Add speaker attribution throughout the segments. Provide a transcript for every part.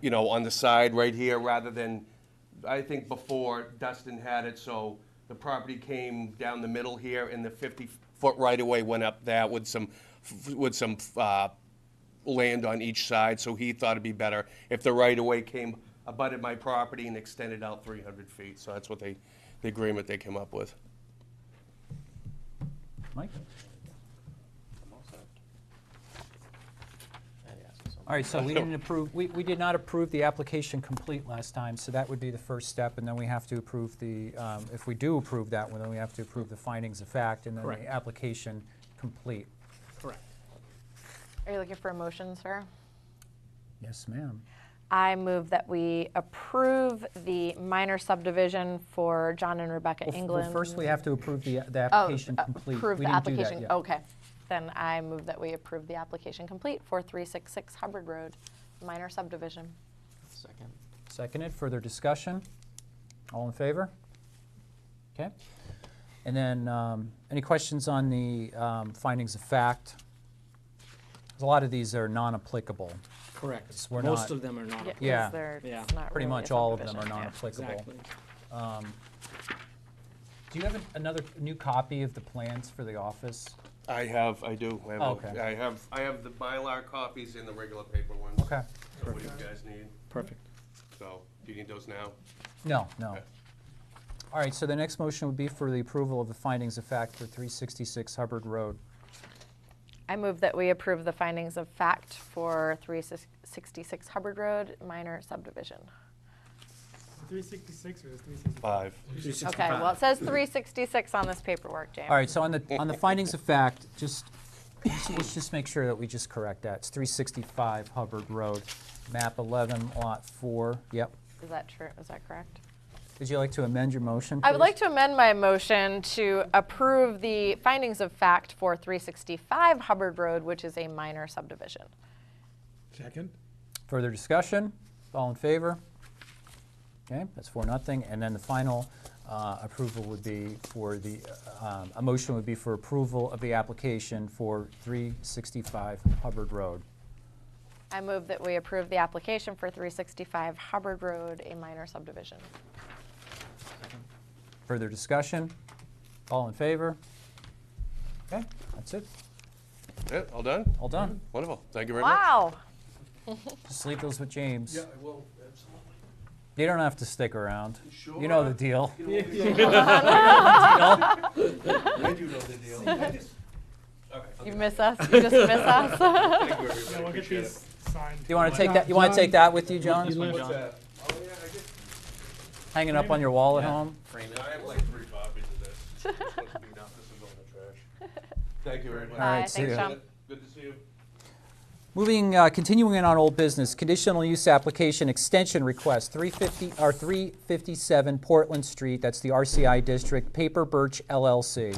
Speaker 1: you know, on the side right here, rather than, I think before Dustin had it, so the property came down the middle here, and the 50-foot right-of-way went up that with some, with some uh, land on each side, so he thought it'd be better if the right-of-way came, abutted my property and extended out 300 feet. So that's what they, the agreement they came up with.
Speaker 2: Mike? All right, so we didn't approve, we, we did not approve the application complete last time, so that would be the first step, and then we have to approve the, um, if we do approve that one, then we have to approve the findings of fact, and then
Speaker 3: Correct.
Speaker 2: the application complete.
Speaker 3: Correct.
Speaker 4: Are you looking for a motion, sir?
Speaker 2: Yes, ma'am.
Speaker 4: I move that we approve the minor subdivision for John and Rebecca England.
Speaker 2: First, we have to approve the, the
Speaker 4: Oh,
Speaker 2: application complete.
Speaker 4: Approve
Speaker 2: We
Speaker 4: the
Speaker 2: didn't do that
Speaker 4: application, Oh,
Speaker 2: yet.
Speaker 4: okay. Then I move that we approve the application complete for 366 Hubbard Road, minor subdivision.
Speaker 3: Second.
Speaker 2: Seconded, further discussion? All in favor? Okay. And then, um, any questions on the um, findings of fact? 'Cause A lot of these are non-applicable,
Speaker 3: Correct.
Speaker 2: we're not-
Speaker 3: Most of them are not.
Speaker 4: Yeah, 'cause
Speaker 2: Yeah.
Speaker 4: they're- it's
Speaker 3: Yeah.
Speaker 4: not
Speaker 2: pretty
Speaker 4: really a
Speaker 2: much all of them are
Speaker 4: subdivision, yeah.
Speaker 2: non-applicable.
Speaker 3: Exactly.
Speaker 2: Do you have an- another new copy of the plans for the office?
Speaker 1: I have, I do. I have a-
Speaker 2: Okay.
Speaker 1: I have, I have the Mylar copies and the regular paper ones.
Speaker 2: Okay.
Speaker 1: So what do you guys need?
Speaker 3: Perfect.
Speaker 1: So, do you need those now?
Speaker 2: No, no.
Speaker 1: Okay.
Speaker 2: All right, so the next motion would be for the approval of the findings of fact for 366 Hubbard Road.
Speaker 4: I move that we approve the findings of fact for 366 Hubbard Road, minor subdivision.
Speaker 5: 366 or is 365?
Speaker 1: Five.
Speaker 4: Okay, well, it says 366 on this paperwork, James.
Speaker 2: All right, so on the, on the findings of fact, just, let's- let's just make sure that we just correct that. It's 365 Hubbard Road, map 11, lot 4. Yep.
Speaker 4: Is that true, is that correct?
Speaker 2: Would you like to amend your motion,
Speaker 4: I would
Speaker 2: please?
Speaker 4: like to amend my motion to approve the findings of fact for 365 Hubbard Road, which is a minor subdivision.
Speaker 5: Second?
Speaker 2: Further discussion? All in favor? Okay, that's four, nothing. And then the final uh, approval would be for the, um, a motion would be for approval of the application for 365 Hubbard Road.
Speaker 4: I move that we approve the application for 365 Hubbard Road, a minor subdivision.
Speaker 2: Further discussion? All in favor? Okay, that's it.
Speaker 1: Yeah, all done?
Speaker 2: All done.
Speaker 1: Wonderful. Thank you very much.
Speaker 4: Wow.
Speaker 2: Just leave those with James.
Speaker 1: I will, absolutely.
Speaker 2: You don't have to stick around. You know the deal.
Speaker 1: I do know the deal. I just- Okay.
Speaker 4: You miss us, you just miss us.
Speaker 1: Thank you,
Speaker 5: Yeah,
Speaker 1: everybody.
Speaker 5: we'll get
Speaker 1: Appreciate it.
Speaker 5: these signed.
Speaker 2: You want to take that, you want to take that with you, John?
Speaker 1: What's that? Oh, yeah, I guess,
Speaker 2: Hanging up on your wall at home?
Speaker 1: I have like three copies of this. It's supposed to be enough. This is going in the trash. Thank you very much.
Speaker 2: All right,
Speaker 4: Bye,
Speaker 2: see
Speaker 4: thanks,
Speaker 2: ya.
Speaker 4: John.
Speaker 1: Good to see you.
Speaker 2: Moving, uh, continuing in on old business, conditional use application extension request, 350, or 357 Portland Street, that's the RCI district, Paper Birch LLC.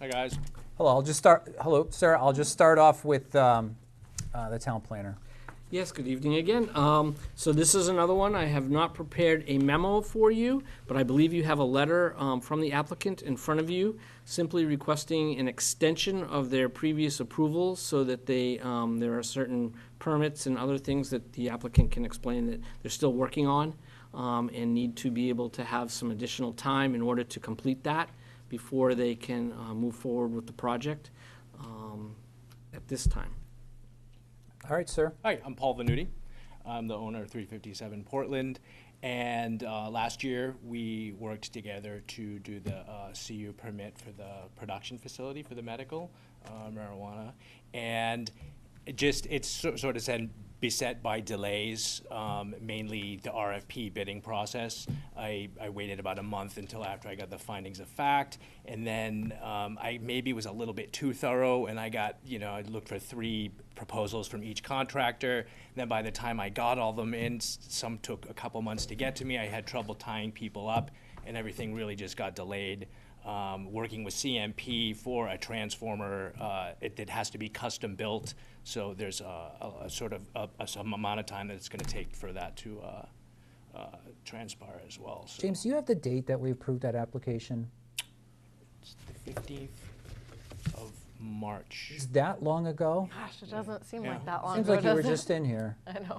Speaker 6: Hi, guys.
Speaker 2: Hello, I'll just start, hello, sir, I'll just start off with um, uh, the town planner.
Speaker 3: Yes, good evening again. Um, So this is another one. I have not prepared a memo for you, but I believe you have a letter um, from the applicant in front of you, simply requesting an extension of their previous approval so that they, um, there are certain permits and other things that the applicant can explain that they're still working on um, and need to be able to have some additional time in order to complete that before they can uh, move forward with the project um, at this time.
Speaker 2: All right, sir.
Speaker 6: Hi, I'm Paul Venuti. I'm the owner of 357 Portland. And uh, last year, we worked together to do the uh, CU permit for the production facility for the medical uh, marijuana. And it just, it's so- sort of said, beset by delays, um, mainly the RFP bidding process. I, I waited about a month until after I got the findings of fact, and then um, I maybe was a little bit too thorough, and I got, you know, I looked for three proposals from each contractor. Then by the time I got all them in, s- some took a couple months to get to me. I had trouble tying people up, and everything really just got delayed um, working with CMP for a transformer uh, it, that has to be custom built. So there's a, a, a sort of a, a, some amount of time that it's going to take for that to uh, uh, transpire as well. So
Speaker 2: James, do you have the date that we approved that application?
Speaker 6: it's the 15th of March.
Speaker 2: Is that long ago?
Speaker 4: Gosh, it doesn't seem
Speaker 6: Yeah.
Speaker 4: like that long
Speaker 2: Seems
Speaker 4: ago,
Speaker 2: like you were
Speaker 4: does it?
Speaker 2: just in here.
Speaker 4: I know.